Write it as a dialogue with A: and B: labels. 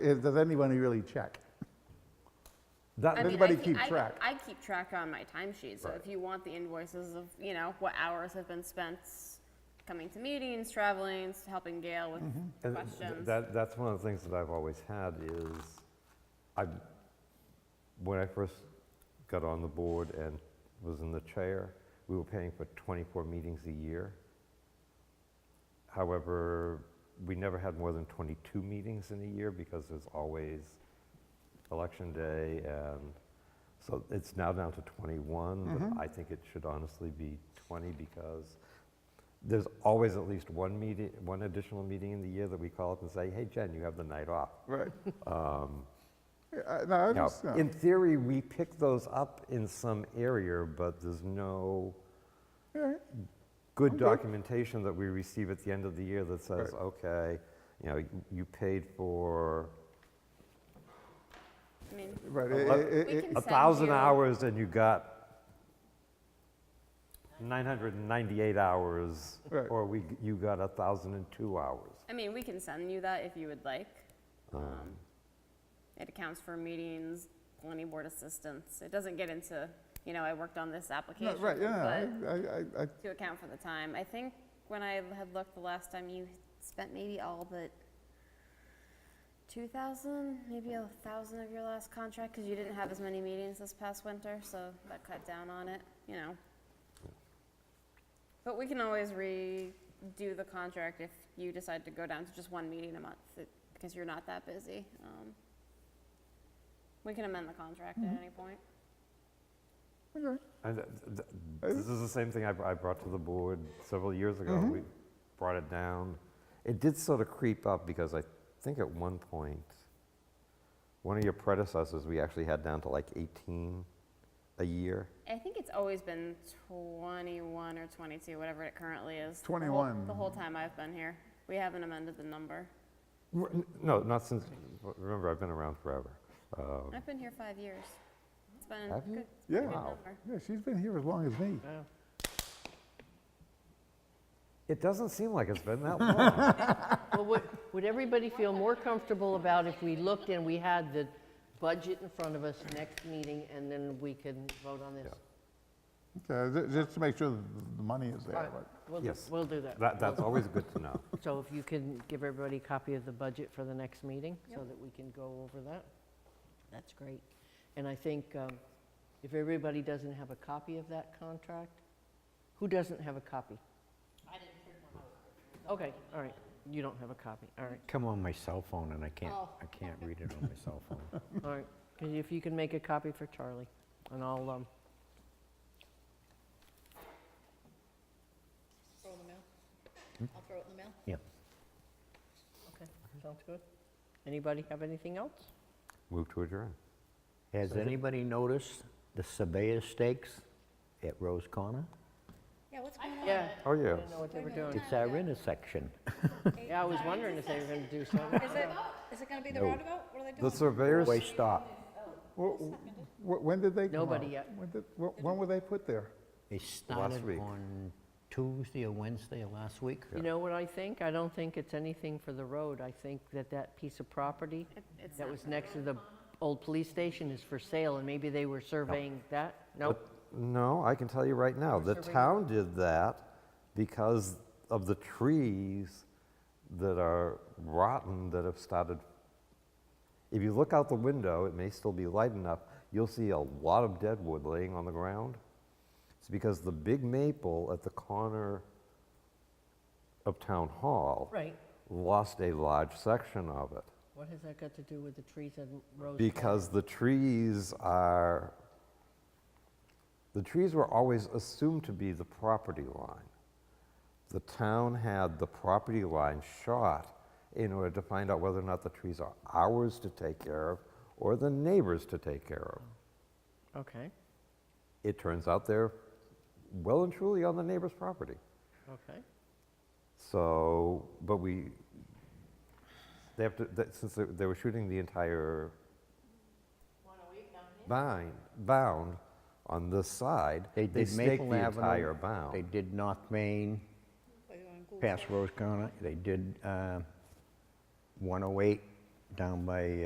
A: is, does anybody really check? Does
B: I mean, I
A: anybody
B: ke-
A: keep
B: I-
A: track?
B: I keep track on my timesheet, so if you want the invoices of, you know, what hours have been spent coming to meetings, traveling, helping Gail
A: Mm-hmm.
B: with
C: And th-
B: questions.
C: That, that's one of the things that I've always had is, I, when I first got on the board and was in the chair, we were paying for 24 meetings a year. However, we never had more than 22 meetings in a year because there's always election day and, so it's now down to 21, but I think it should honestly be 20 because there's always at least one meeting, one additional meeting in the year that we call up and say, hey, Jen, you have the night off. Um,
A: Right. Yeah, I- No, I uh,
C: Now,
A: understand.
C: in theory, we pick those up in some area, but there's no good documentation that we receive at the end of the year that says, okay, you know, you paid for
B: I mean,
A: Right,
C: Uh,
A: it-
C: let-
A: it- it-
B: We
A: it-
B: can-
C: a
B: send
C: thousand
B: you-
C: hours and you got 998 hours,
A: Right.
C: or we, g- you got 1,002 hours.
B: I mean, we can send you that if you would like.
A: Oh.
B: Um, It accounts for meetings, planning board assistance. It doesn't get into, you know, I worked on this
A: no,
B: application.
A: right, yeah,
B: but
A: I- I, I, I,
B: To account for the time. I think when I had looked the last time, you spent maybe all but two thousand, maybe a thousand of your last contract, because you didn't have as many meetings this past winter, so that cut down on it, you know. But we can always redo the contract if you decide to go down to just one meeting a month, it- because you're not that busy. Um, We can amend the contract at any point.
A: okay,
C: And th- th- this is the same thing I, br- I brought to the board several years ago. We brought it down. It did sort of creep up because I think at one point, one of your predecessors, we actually had down to like 18 a year.
B: I think it's always been 21 or 22, whatever it currently is. the whole-
A: 21.
B: The whole time I've been here. We haven't amended the number.
C: R- n- No, not since, remember, I've been around forever. Um,
B: I've been here five years. It's been a
C: Have you?
B: good,
A: Yeah.
B: good
C: Wow.
B: number.
A: yeah, she's been here as long as me.
C: It doesn't seem like it's been that long.
D: Well, would, would everybody feel more comfortable about if we looked and we had the budget in front of us next meeting and then we can vote on this?
A: Okay, Uh, ju- just to make sure that the money is there,
D: Alright,
A: but-
D: We'll,
C: Yes.
D: we'll do that.
C: That, that's always good to know.
D: So if you can give everybody a copy of the budget for the next meeting so that we can go over that, that's great. And I think um, if everybody doesn't have a copy of that contract, who doesn't have a copy? I didn't print one out. Okay, all right. You don't have a copy, all right.
E: Come on my cell phone and I can't,
F: Oh.
E: I can't read it on my cell phone.
D: All right, Can- if you can make a copy for Charlie, and I'll, um...
F: Throw it in the mail. I'll throw it in the mail.
E: Yeah.
D: Okay, sounds good. Anybody have anything else?
C: Move to adjourn.
E: Has anybody noticed the Sabea stakes at Rose Corner?
F: Yeah, what's going on?
D: Yeah.
C: Oh, yeah.
D: I don't know what they were doing.
E: It's our intersection.
D: Yeah, I was wondering if they were gonna do something.
F: Is it, is it gonna be the
C: No.
F: roundabout? What are they
C: The
F: doing?
C: surveyors,
E: Way stop.
A: Wh- wh- wh- When did they come out?
D: Nobody yet.
A: When did- wh- When were they put there?
E: They started
C: week.
E: on Tuesday or Wednesday of last week.
D: You know what I think? I don't think it's anything for the road. I think that that piece of property
B: It's
D: that
B: not-
D: was next to the old police station is for sale, and maybe they were surveying that? No?
C: no, I can tell you right now, the town did that because of the trees that are rotten that have started. If you look out the window, it may still be light enough, you'll see a lot of dead wood laying on the ground. It's because the big maple at the corner of Town Hall
D: Right.
C: lost a large section of it.
D: What has that got to do with the trees and roads?
C: Because the trees are, the trees were always assumed to be the property line. The town had the property line shot in order to find out whether or not the trees are ours to take care of or the neighbors to take care of.
D: Okay,
C: It turns out they're well and truly on the neighbor's property.
D: okay.
C: So, but we, they have to, that- since they- they were shooting the entire bind, bound on this side,
E: They
C: they
E: did
C: staked
E: Maple
C: the entire
E: Avenue. They
C: bound.
E: did North Main,
F: Are you on Google?
E: past Rose Corner. They did uh, 108 down by